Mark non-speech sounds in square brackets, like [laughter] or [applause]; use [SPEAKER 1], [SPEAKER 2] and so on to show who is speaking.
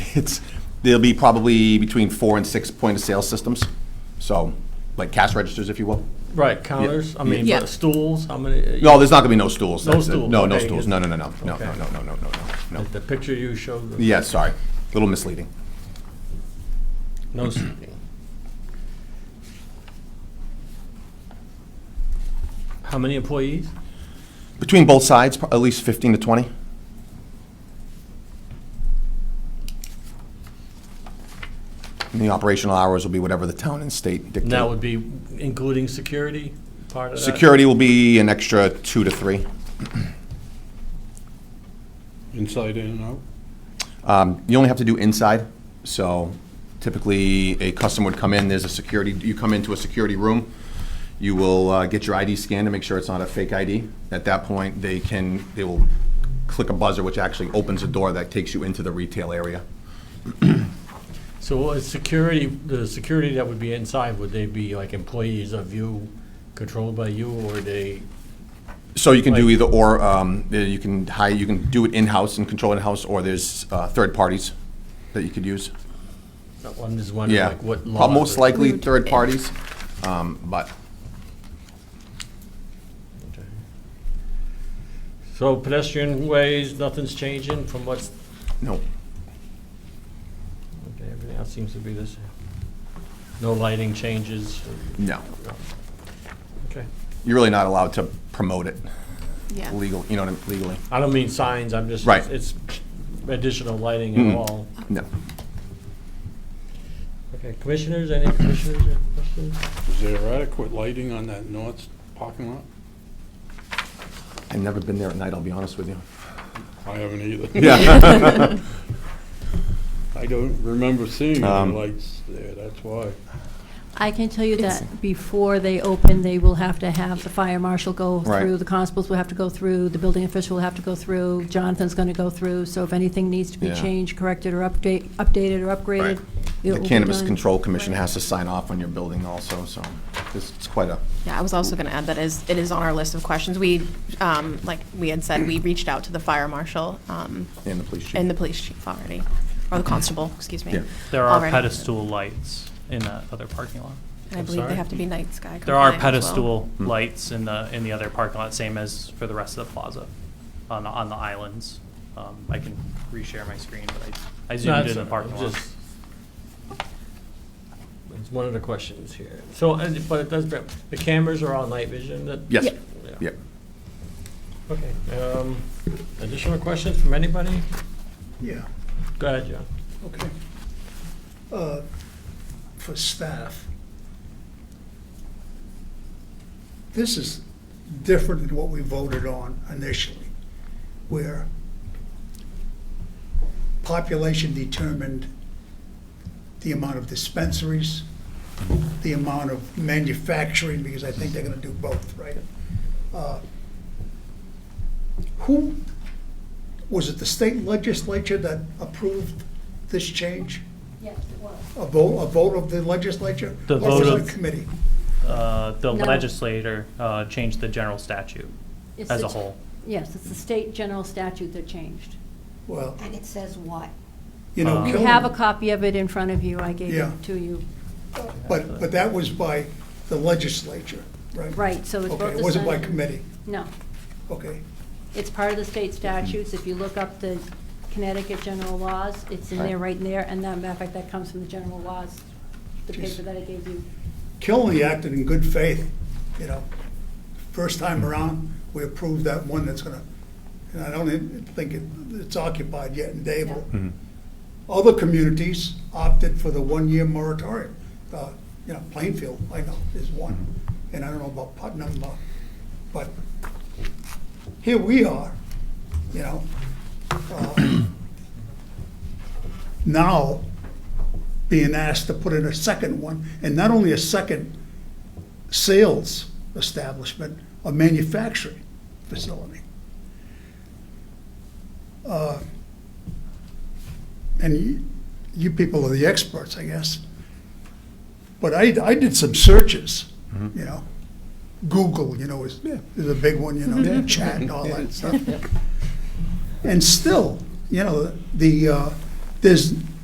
[SPEAKER 1] it's, there'll be probably between four and six point of sale systems. So, like cash registers, if you will.
[SPEAKER 2] Right, counters, I mean,
[SPEAKER 3] Yeah.
[SPEAKER 2] but stools, how many?
[SPEAKER 1] No, there's not gonna be no stools.
[SPEAKER 2] No
[SPEAKER 1] That's it.
[SPEAKER 2] stools,
[SPEAKER 1] No, no
[SPEAKER 2] okay,
[SPEAKER 1] stools.
[SPEAKER 2] good.
[SPEAKER 1] No, no, no, no, no,
[SPEAKER 2] Okay.
[SPEAKER 1] no, no, no, no, no, no.
[SPEAKER 2] The picture you showed, the-
[SPEAKER 1] Yeah, sorry. A little misleading. [clears throat]
[SPEAKER 2] no seating. How many employees?
[SPEAKER 1] Between both sides, pro- at least fifteen to twenty. And the operational hours will be whatever the town and state
[SPEAKER 2] And that
[SPEAKER 1] dictate.
[SPEAKER 2] would be including security part of that?
[SPEAKER 1] Security will be an extra two to three.
[SPEAKER 4] Inside in and out?
[SPEAKER 1] Um, You only have to do inside, so typically, a customer would come in, there's a security, you come into a security room, you will uh, get your ID scanned to make sure it's not a fake ID. At that point, they can, they will click a buzzer, which actually opens a door that takes you into the retail area.
[SPEAKER 2] So what is security, the security that would be inside, would they be like employees of you, controlled by you, or they?
[SPEAKER 1] So you can do
[SPEAKER 2] Like-
[SPEAKER 1] either or, um, there you can hire, you can do it in-house and control in-house, or there's uh, third parties that you could use.
[SPEAKER 2] I'm just wondering
[SPEAKER 1] Yeah,
[SPEAKER 2] like what
[SPEAKER 1] prob-
[SPEAKER 2] law.
[SPEAKER 1] most likely third parties, um, but
[SPEAKER 2] So pedestrian ways, nothing's changing from what's,
[SPEAKER 1] no.
[SPEAKER 2] okay, everything else seems to be the same. No lighting changes?
[SPEAKER 1] No.
[SPEAKER 2] Okay.
[SPEAKER 1] You're really not allowed to promote it
[SPEAKER 3] Yeah.
[SPEAKER 1] legal, you know, what I mean, legally.
[SPEAKER 2] I don't mean signs, I'm just,
[SPEAKER 1] Right. Mm-hmm.
[SPEAKER 2] it's additional lighting and all.
[SPEAKER 1] No.
[SPEAKER 2] Okay, commissioners, any commissioners have questions?
[SPEAKER 4] Is there adequate lighting on that north parking lot?
[SPEAKER 1] I've never been there at night, I'll be honest with you.
[SPEAKER 4] I haven't either.
[SPEAKER 1] [laughs] Yeah.
[SPEAKER 4] [laughs] I don't remember seeing any
[SPEAKER 1] Um,
[SPEAKER 4] lights there, that's why.
[SPEAKER 5] I can tell you that before they open, they will have to have the fire marshal go
[SPEAKER 1] Right.
[SPEAKER 5] through, the constables will have to go through, the building official will have to go through, Jonathan's going to go through, so if anything needs to be
[SPEAKER 1] Yeah.
[SPEAKER 5] changed, corrected, or update, updated or upgraded, it
[SPEAKER 1] The
[SPEAKER 5] will be
[SPEAKER 1] Cannabis
[SPEAKER 5] done.
[SPEAKER 1] Control Commission has to sign off on your building also, so it's it's quite a,
[SPEAKER 3] Yeah, I was also going to add that is, it is on our list of questions. We, um, like we had said, we reached out to the fire marshal um,
[SPEAKER 1] and the police chief.
[SPEAKER 3] and the police chief already, or the constable, excuse me.
[SPEAKER 1] Yeah.
[SPEAKER 6] There are
[SPEAKER 3] already.
[SPEAKER 6] pedestal lights in that other parking lot.
[SPEAKER 3] And I
[SPEAKER 2] I'm
[SPEAKER 3] believe they
[SPEAKER 2] sorry?
[SPEAKER 3] have to be night sky compliant
[SPEAKER 6] There are
[SPEAKER 3] as well.
[SPEAKER 6] pedestal lights in the, in the other parking lot, same as for the rest of the plaza, on, the- on the islands. Um, I can reshare my screen, but I I zoomed in the parking lot.
[SPEAKER 2] Just- It's one of the questions here. So, and- but it does, bring- the cameras are all night vision that?
[SPEAKER 1] Yes,
[SPEAKER 3] Yeah.
[SPEAKER 1] yeah.
[SPEAKER 2] Okay, um, additional questions from anybody?
[SPEAKER 7] Yeah,
[SPEAKER 2] Go ahead, John.
[SPEAKER 7] okay. Uh, For staff, this is different than what we voted on initially, where population determined the amount of dispensaries, the amount of manufacturing, because I think they're gonna do both, right? Uh, Who, was it the state legislature that approved this change?
[SPEAKER 5] Yes, it was.
[SPEAKER 7] A vote, a vote of the legislature?
[SPEAKER 6] The
[SPEAKER 7] Or was
[SPEAKER 6] vote
[SPEAKER 7] it
[SPEAKER 6] of-
[SPEAKER 7] a committee?
[SPEAKER 6] Uh, The
[SPEAKER 5] No.
[SPEAKER 6] legislator uh, changed the general statute
[SPEAKER 5] It's
[SPEAKER 6] as
[SPEAKER 5] the-
[SPEAKER 6] a whole.
[SPEAKER 5] Yes, it's the state general statute that changed.
[SPEAKER 7] Well,
[SPEAKER 8] And it says what?
[SPEAKER 7] you know,
[SPEAKER 6] Uh,
[SPEAKER 5] You
[SPEAKER 7] Killen-
[SPEAKER 5] have a copy of it in front of you, I gave
[SPEAKER 7] Yeah.
[SPEAKER 5] it to you.
[SPEAKER 7] But, but that was by the legislature, right?
[SPEAKER 5] Right, so it's both
[SPEAKER 7] Okay,
[SPEAKER 5] the.
[SPEAKER 7] it wasn't by
[SPEAKER 5] Senate-
[SPEAKER 7] committee,
[SPEAKER 5] No.
[SPEAKER 7] okay.
[SPEAKER 5] It's part of the state statutes. If you look up the Connecticut general laws, it's in there, right in there. And that, matter of fact, that comes from the general laws, the
[SPEAKER 7] Jeez.
[SPEAKER 5] paper that I gave you.
[SPEAKER 7] Killenly acted in good faith, you know. First time around, we approved that one that's gonna, and I don't even think it- it's occupied yet in Dable. Other communities opted for the one-year moratorium. Uh, You know, Plainfield, I know, is one, and I don't know about Putnam, uh, but here we are, you know. uh, [coughs] Now, being asked to put in a second one, and not only a second sales establishment, a manufacturing facility. Uh, And you- you people are the experts, I guess. But I, I did some searches, you know. Google, you know, is, is a big one, you know, chat and all that stuff. And still, you know, the, uh, there's,